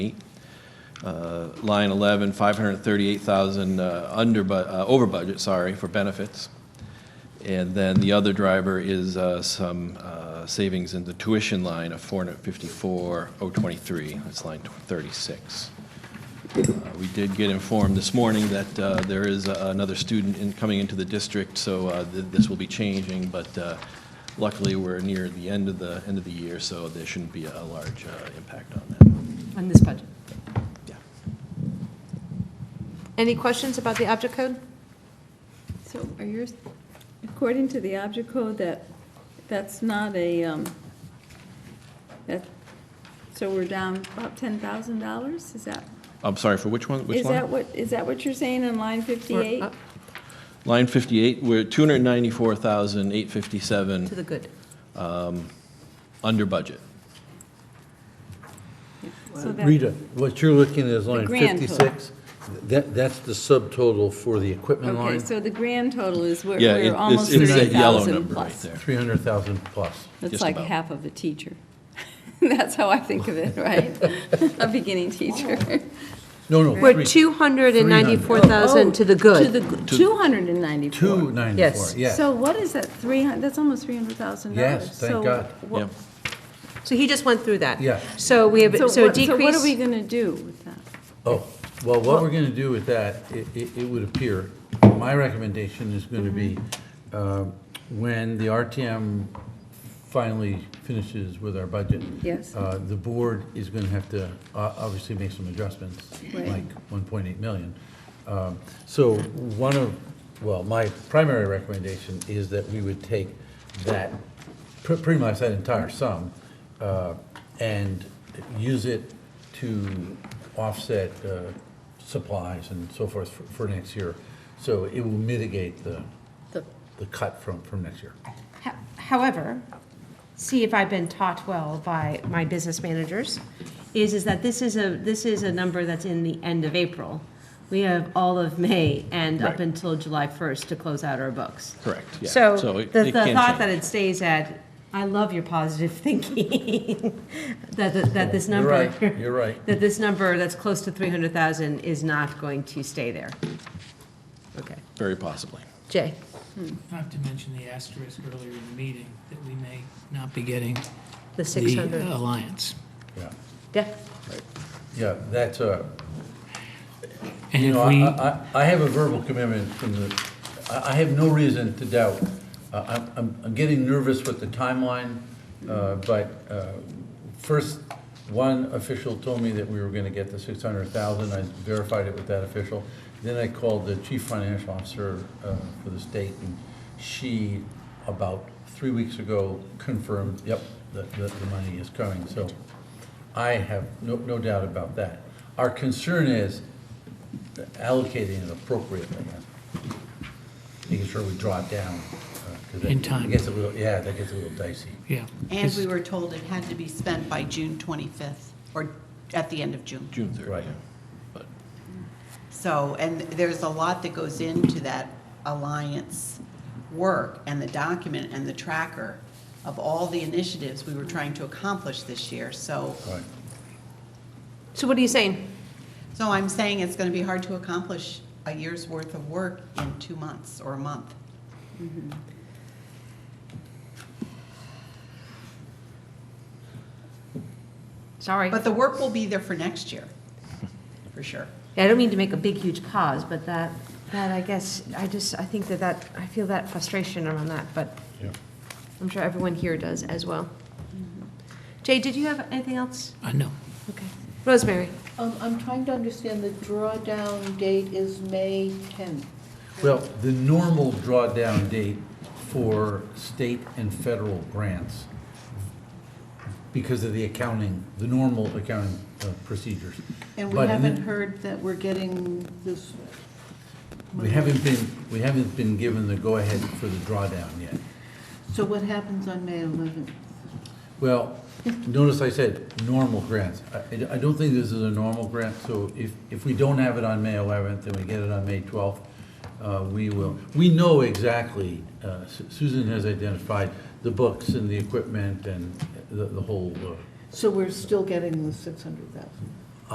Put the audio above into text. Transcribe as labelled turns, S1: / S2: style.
S1: uh, line 11, 538,000 uh, under, bu- uh, over budget, sorry, for benefits. And then the other driver is uh, some uh, savings in the tuition line of 454,023. That's line 36. Uh, We did get informed this morning that uh, there is a- another student in- coming into the district, so uh, th- this will be changing, but uh, luckily, we're near the end of the, end of the year, so there shouldn't be a large uh, impact on that.
S2: on this budget.
S1: Yeah.
S2: Any questions about the object code?
S3: So are yours, according to the object code, that, that's not a, um, that, so we're down about ten thousand dollars, is that?
S1: I'm sorry, for which one? Which
S3: Is that
S1: line?
S3: what, is that what you're saying on line fifty-eight?
S2: We're up
S1: Line 58, we're 294,857
S2: To the good.
S1: under budget.
S3: So that-
S4: Rita, what you're looking at is line
S3: grand total.
S4: 56. That, that's the subtotal for the equipment
S3: Okay,
S4: line,
S3: so the grand total is, we're,
S1: Yeah, it-
S3: we're
S1: it's
S3: almost
S1: it's
S3: thirty
S1: that yellow
S3: thousand
S1: number right
S3: plus.
S1: there.
S4: 300,000 plus.
S3: That's
S1: just
S3: like
S1: about.
S3: half of a teacher. That's how I think of it, right? A beginning teacher.
S4: No, no,
S2: We're
S4: three,
S2: 294,000 to the
S3: To
S2: good.
S3: the, two hundred and ninety-four.
S4: 294,
S2: Yes.
S4: yes.
S3: So what is that, three hundred? that's almost three hundred thousand dollars.
S4: Yes, thank God.
S1: Yeah.
S2: So he just went through that.
S4: Yeah.
S2: So we have, so
S3: what- So what are we
S2: decrease,
S3: going to do with that?
S4: Oh, well, what we're going to do with that, it, it it would appear, my recommendation is going to be,
S3: Mm-hmm.
S4: um, when the RTM finally finishes with our budget.
S3: Yes.
S4: uh, The board is going to have to, uh, obviously, make some adjustments,
S3: Right.
S4: like 1.8 million. Um, So one of, well, my primary recommendation is that we would take that, pre- pretty much that entire sum, uh, and use it to offset uh, supplies and so forth for- for next year. So it will mitigate the, the cut from, from next year.
S5: Ho- However, see if I've been taught well by my business managers, is, is that this is a, this is a number that's in the end of April. We have all of May and up
S1: Right.
S5: until July 1st to close out our books.
S1: Correct, yeah.
S5: So
S1: So
S5: the
S1: it-
S5: the
S1: it can
S5: thought that
S1: change.
S5: it stays at, I love your positive thinking, that, that that this
S4: You're
S5: number.
S4: right, you're right.
S5: That this number that's close to 300,000 is not going to stay there. Okay.
S1: Very possibly.
S5: Jay?
S6: Not to mention the asterisk earlier in the meeting, that we may not be getting
S5: The
S6: the
S5: 600?
S6: alliance.
S4: Yeah,
S5: Yeah.
S4: yeah, that's a,
S6: And
S4: You
S6: if
S4: know,
S6: we,
S4: I, I, I have a verbal commitment from the, I, I have no reason to doubt. Uh, I'm, I'm, I'm getting nervous with the timeline, uh, but, uh, first, one official told me that we were gonna get the six hundred thousand, I verified it with that official. Then I called the chief financial officer, uh, for the state, and she, about three weeks ago, confirmed, yep, that, that the money is coming, so I have no, no doubt about that. Our concern is, allocating it appropriately, and making sure we draw it down. uh, 'cause that-
S6: In time.
S4: It gets a little, yeah, that gets a little dicey.
S6: yeah.
S7: And we were told it had to be spent by June 25th, or at the end of June.
S1: June 30th.
S4: Right.
S1: But
S7: So, and there's a lot that goes into that alliance work and the document and the tracker of all the initiatives we were trying to accomplish this year. So,
S4: Right.
S2: So what are you saying?
S7: so I'm saying it's going to be hard to accomplish a year's worth of work in two months or a month.
S5: Sorry.
S7: But the work will be there for next year, for sure.
S5: Yeah, I don't mean to make a big, huge pause, but that, that, I guess, I just, I think that that, I feel that frustration around that, but
S4: Yeah.
S5: I'm sure everyone here does as well.
S7: Mm-hmm.
S5: Jay, did you have anything else?
S6: I know.
S5: Okay. Rosemary?
S8: Um, I'm trying to understand, the drawdown date is May 10th.
S4: Well, the normal drawdown date for state and federal grants, because of the accounting, the normal accounting uh, procedures.
S8: And we
S4: But
S8: haven't heard that we're getting this,
S4: We haven't been, we haven't been given the go-ahead for the drawdown yet.
S8: so what happens on May 11th?
S4: Well, notice I said normal grants. I, I don't think this is a normal grant, so if, if we don't have it on May 11th and we get it on May 12th, uh, we will, we know exactly, uh, Su- Susan has identified the books and the equipment and the, the whole, uh,
S8: So we're still getting the 600,000.